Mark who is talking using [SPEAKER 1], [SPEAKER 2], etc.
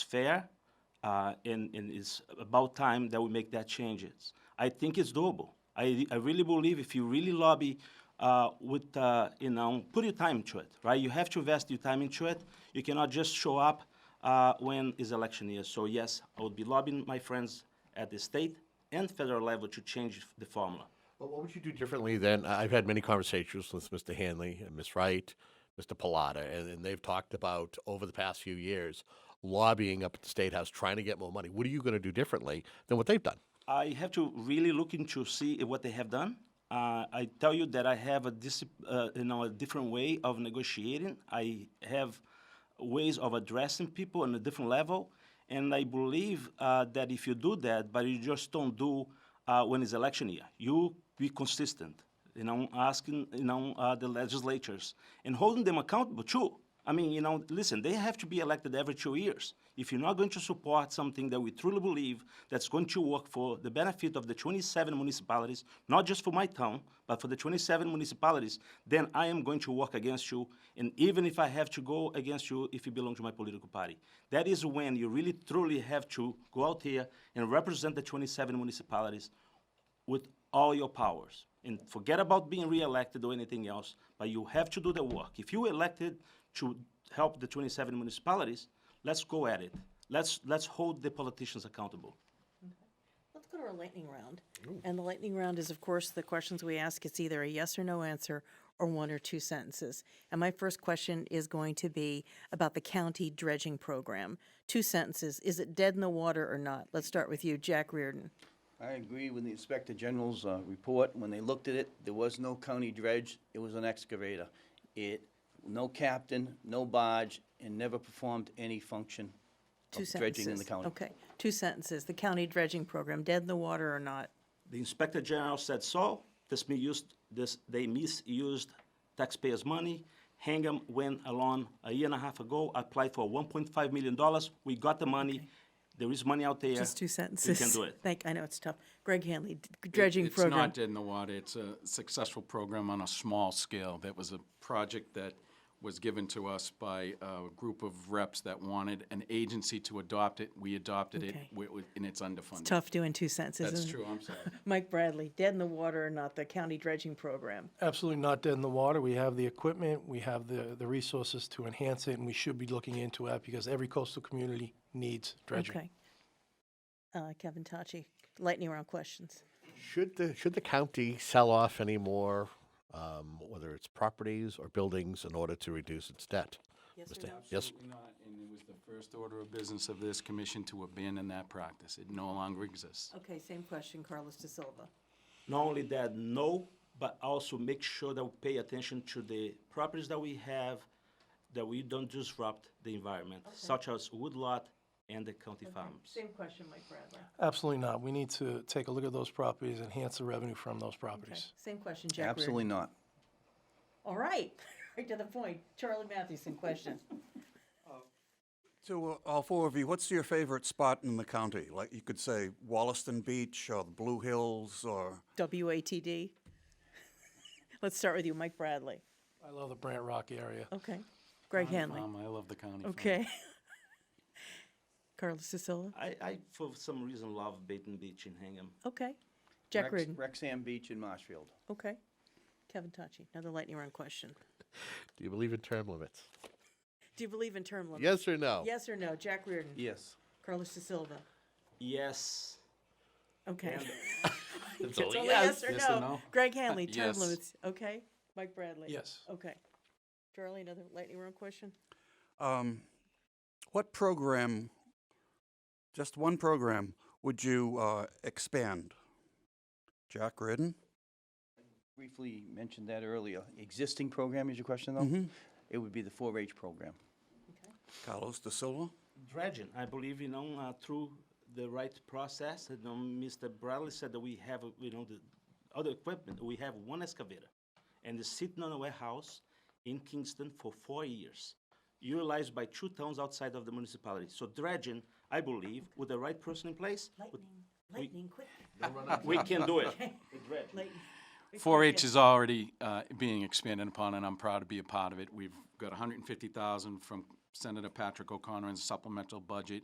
[SPEAKER 1] fair, uh, and, and it's about time that we make that changes. I think it's doable. I, I really believe if you really lobby uh, with, uh, you know, put your time into it, right? You have to invest your time into it. You cannot just show up uh, when is election year. So yes, I would be lobbying my friends at the state and federal level to change the formula.
[SPEAKER 2] Well, what would you do differently then? I- I've had many conversations with Mr. Hanley and Ms. Wright, Mr. Pilata, and, and they've talked about over the past few years lobbying up at the State House, trying to get more money. What are you going to do differently than what they've done?
[SPEAKER 1] I have to really look into see what they have done. Uh, I tell you that I have a dis- uh, you know a different way of negotiating. I have ways of addressing people on a different level, and I believe uh, that if you do that, but you just don't do uh, when it's election year, you be consistent. You know, asking you know uh, the legislatures and holding them accountable too. I mean, you know, listen, they have to be elected every two years. If you're not going to support something that we truly believe that's going to work for the benefit of the 27 municipalities, not just for my town, but for the 27 municipalities, then I am going to work against you. And even if I have to go against you, if you belong to my political party, that is when you really truly have to go out here and represent the 27 municipalities with all your powers. And forget about being reelected or anything else, but you have to do the work. If you elected to help the 27 municipalities, let's go at it. Let's, let's hold the politicians accountable.
[SPEAKER 3] Let's go to our lightning round. And the lightning round is, of course, the questions we ask. It's either a yes or no answer or one or two sentences. And my first question is going to be about the county dredging program. Two sentences. Is it dead in the water or not? Let's start with you, Jack Reardon.
[SPEAKER 4] I agree with the Inspector General's uh, report. When they looked at it, there was no county dredge, it was an excavator. It, no captain, no barge, and never performed any function
[SPEAKER 3] Two
[SPEAKER 4] of
[SPEAKER 3] sentences.
[SPEAKER 4] dredging in the county.
[SPEAKER 3] Okay. Two sentences. The county dredging program, dead in the water or not?
[SPEAKER 1] The inspector general said so. This misused, this, they misused taxpayers' money. Hingham went along a year and a half ago, applied for $1.5 million. We got the money. There is money out there.
[SPEAKER 3] Just two sentences.
[SPEAKER 1] We can do it.
[SPEAKER 3] Thank, I know it's tough. Greg Hanley, d-
[SPEAKER 5] It-
[SPEAKER 3] dredging
[SPEAKER 5] it's
[SPEAKER 3] program.
[SPEAKER 5] not dead in the water. It's a successful program on a small scale. That was a project that was given to us by a group of reps that wanted an agency to adopt it. We adopted it,
[SPEAKER 3] Okay.
[SPEAKER 5] we- we- and it's underfunded.
[SPEAKER 3] Tough doing two sentences.
[SPEAKER 5] That's
[SPEAKER 3] isn't it?
[SPEAKER 5] true, I'm sorry.
[SPEAKER 3] Mike Bradley, dead in the water or not, the county dredging program.
[SPEAKER 6] absolutely not dead in the water. We have the equipment, we have the, the resources to enhance it, and we should be looking into it because every coastal community needs dredging.
[SPEAKER 3] Okay. Uh, Kevin Tachi, lightning round questions.
[SPEAKER 2] Should the should the county sell off any more, um, whether it's properties or buildings, in order to reduce its debt? Yes, yes.
[SPEAKER 5] Absolutely not, and it was the first order of business of this commission to abandon that practice. It no longer exists.
[SPEAKER 3] Okay, same question, Carlos De Silva.
[SPEAKER 1] not only that, no, but also make sure that we pay attention to the properties that we have, that we don't disrupt the environment, such as woodlot and the county farms.
[SPEAKER 3] Same question, Mike Bradley.
[SPEAKER 6] Absolutely not. We need to take a look at those properties, enhance the revenue from those properties.
[SPEAKER 3] Same question, Jack Reardon.
[SPEAKER 4] Absolutely not.
[SPEAKER 3] All right, right to the point. Charlie Mathewson, question.
[SPEAKER 7] So, uh, all four of you, what's your favorite spot in the county? Like, you could say Wollaston Beach or the Blue Hills or.
[SPEAKER 3] WATD. Let's start with you, Mike Bradley.
[SPEAKER 6] I love the Brant Rock area.
[SPEAKER 3] Okay. Greg Hanley.
[SPEAKER 5] Um, I love the county. farm.
[SPEAKER 3] Okay. Carlos De Silva.
[SPEAKER 1] I, I, for some reason, love Baton Beach in Hingham.
[SPEAKER 3] Okay. Jack
[SPEAKER 4] Rex-
[SPEAKER 3] Reardon.
[SPEAKER 4] Rexham Beach in Marshfield.
[SPEAKER 3] Okay. Kevin Tachi, another lightning round question.
[SPEAKER 2] Do you believe in term limits?
[SPEAKER 3] Do you believe in term limits?
[SPEAKER 2] Yes or no?
[SPEAKER 3] Yes or no? Jack Reardon.
[SPEAKER 4] Yes.
[SPEAKER 3] Carlos De Silva.
[SPEAKER 1] Yes,
[SPEAKER 3] Okay.
[SPEAKER 2] It's
[SPEAKER 3] It's
[SPEAKER 2] only
[SPEAKER 3] only
[SPEAKER 2] yes.
[SPEAKER 3] yes or
[SPEAKER 5] Yes or
[SPEAKER 3] no.
[SPEAKER 5] no?
[SPEAKER 3] Greg Hanley,
[SPEAKER 5] Uh,
[SPEAKER 3] term
[SPEAKER 5] yes.
[SPEAKER 3] limits. Okay. Mike Bradley.
[SPEAKER 6] Yes.
[SPEAKER 3] Okay. Charlie, another lightning round question?
[SPEAKER 7] Um, what program, just one program, would you uh, expand? Jack Ridden?
[SPEAKER 4] Briefly mentioned that earlier. Existing program is your question,
[SPEAKER 3] Mm-hmm.
[SPEAKER 4] though?
[SPEAKER 7] Mm-hmm.
[SPEAKER 4] It would be the 4-H program.
[SPEAKER 7] Carlos De Silva?
[SPEAKER 1] dredging. I believe you know uh, through the right process. You know, Mr. Bradley said that we have uh, you know the other equipment. We have one excavator, and it's sitting on a warehouse in Kingston for four years, utilized by two towns outside of the municipality. So dredging, I believe, with the right person in place, with-
[SPEAKER 3] lightning, quick.
[SPEAKER 1] we can do it.
[SPEAKER 5] 4-H is already uh, being expanded upon, and I'm proud to be a part of it. We've got 150,000 from Senator Patrick O'Connor in supplemental budget.